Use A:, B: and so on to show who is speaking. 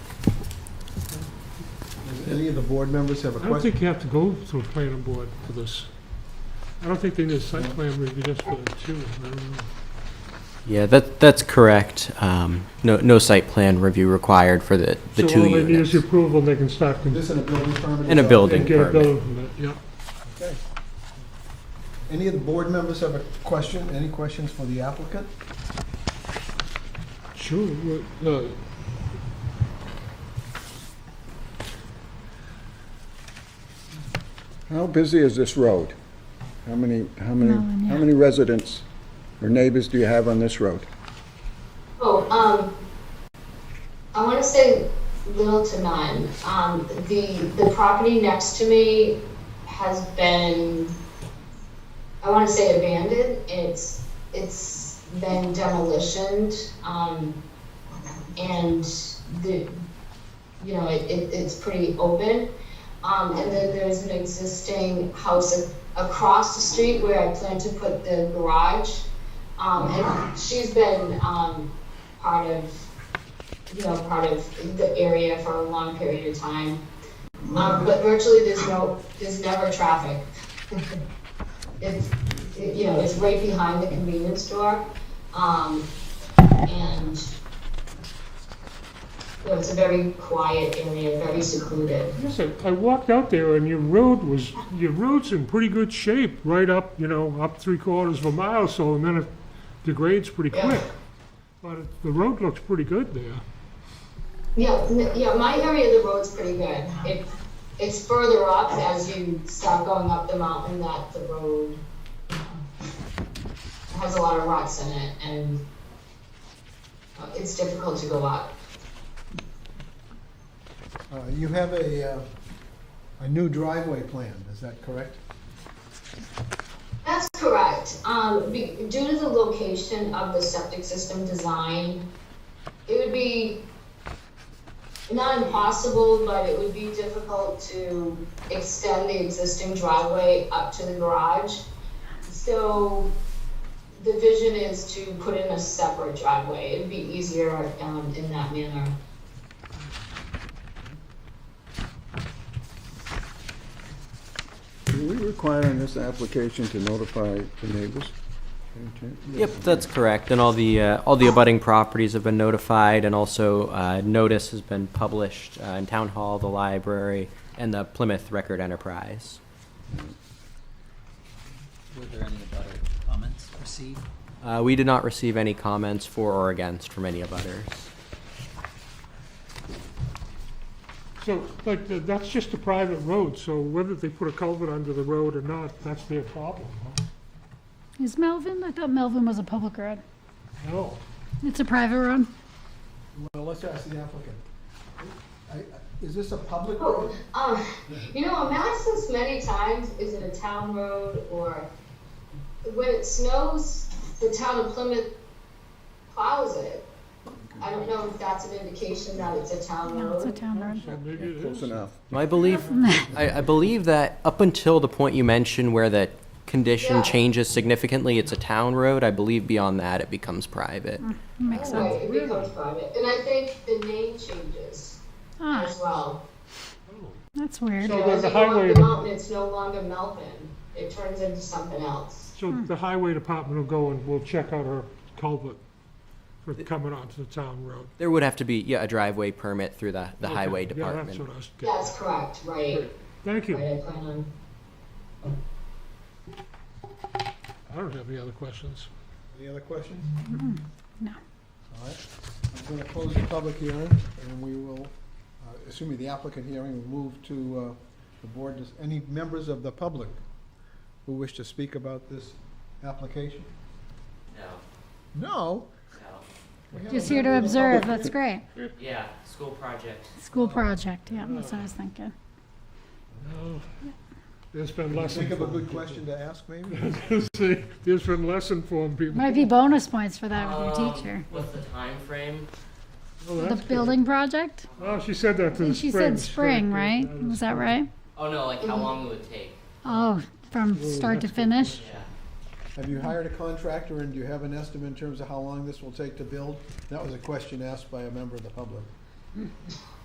A: any of the board members have a
B: I don't
A: question?
B: think you have to go through planning board for this. I don't think they need a site plan review just for the two, I don't know.
C: Yeah, that, that's correct. Um, No, no site plan review required for the, the
B: So all
C: two
B: they need is
C: units.
B: your approval, they can start con-
A: This in a building permit?
C: And a
A: is up.
C: building.
B: and get a
C: permit.
B: building permit, yeah.
A: Okay. Any of the board members have a question? Any questions for the applicant?
B: Sure, what, uh,
D: How busy is this road? How many, how many,
E: No one,
D: how
E: yeah.
D: many residents or neighbors do you have on this road?
F: Oh, um, I want to say little to none. Um, the, the property next to me has been, I want to say abandoned. It's, it's been demolitioned. Um, and the, you know, it, it, it's pretty open. Um, and then there's an existing house ac- across the street where I plan to put the garage. Um, and she's been, um, part of, you know, part of the area for a long period of time. Um, but virtually there's no, there's never traffic. It's, it- you know, it's right behind the convenience store. Um, and you know, it's a very quiet area, very secluded.
B: listen, I walked out there and your road was, your road's in pretty good shape, right up, you know, up three quarters of a mile, so, and then it degrades pretty
F: Yeah.
B: quick. But it- the road looks pretty good there.
F: Yeah, n- yeah, my area of the road's pretty good. It, it's further up as you start going up the mountain that the road uh, has a lot of rocks in it and uh, it's difficult to go up.
A: Uh, You have a, uh, a new driveway plan, is that correct?
F: That's correct. Um, be, due to the location of the septic system design, it would be not impossible, but it would be difficult to extend the existing driveway up to the garage. So the vision is to put in a separate driveway. It'd be easier, um, in that manner.
D: Do we require in this application to notify the neighbors?
C: Yep, that's correct. And all the, uh, all the abutting properties have been notified and also uh, notice has been published uh, in Town Hall, the library, and the Plymouth Record Enterprise.
G: Were there any abutter comments received?
C: Uh, We did not receive any comments for or against from any abutters.
B: So, like, th- that's just a private road, so whether they put a culvert under the road or not, that's their problem, huh?
E: Is Melvin? I thought Melvin was a public road.
B: No.
E: It's a private road.
A: Well, let's ask the applicant. I- I- Is this a public
F: Oh,
A: road?
F: um, you know, Madison's many times is it a town road or when it snows, the town of Plymouth plows it. I don't know if that's an indication that it's a town
E: No, it's a
F: road.
E: town road.
B: So maybe it
D: Close
B: is.
D: enough.
C: I believe, I, I believe that up until the point you mentioned where that
F: Yeah.
C: condition changes significantly, it's a town road. I believe beyond that, it becomes private.
E: Makes sense.
F: Anyway, it becomes private. And I think the name changes
E: Ah,
F: as well.
E: that's weird.
B: So
F: You know,
B: then
F: as
B: the
F: you go up
B: highway-
F: The mountain, it's no longer Melvin. It turns into something else.
B: So
E: Hmm.
B: the highway department will go and we'll check out our culvert for coming onto the town road.
C: There would have to be, yeah, a driveway permit through the, the highway
B: Okay, Yeah, that's
C: department.
B: what I was getting.
F: That's correct, right?
B: Thank you.
F: Right, I plan on.
B: I don't have any other questions.
A: Any other questions?
E: No.
A: All right, I'm going to close the public hearing, and we will, uh, assuming the applicant hearing, will move to uh, the board. Does any members of the public who wish to speak about this application?
C: No,
A: No? We have
E: Just
A: a
E: here to
A: member of the
E: observe.
A: public.
E: That's great.
C: no. Yeah, school project.
E: School project. Yeah, that's what I was thinking.
B: No. There's been less
A: Think of a
B: informed
A: good
B: people.
A: question to ask, maybe?
B: See, There's been less informed people.
E: Might be bonus points for that with
C: Oh.
E: your teacher.
C: What's the time frame?
B: Oh,
E: The
B: that's good.
E: building project?
B: Oh, she said that to the spring.
E: She said spring,
B: Yeah,
E: right?
B: that
E: Was
B: is-
E: that right?
C: Oh, no, like how long it would take?
E: Oh, from start to finish?
C: Yeah.
A: Have you hired a contractor, and do you have an estimate in terms of how long this will take to build? That was a question asked by a member of the public.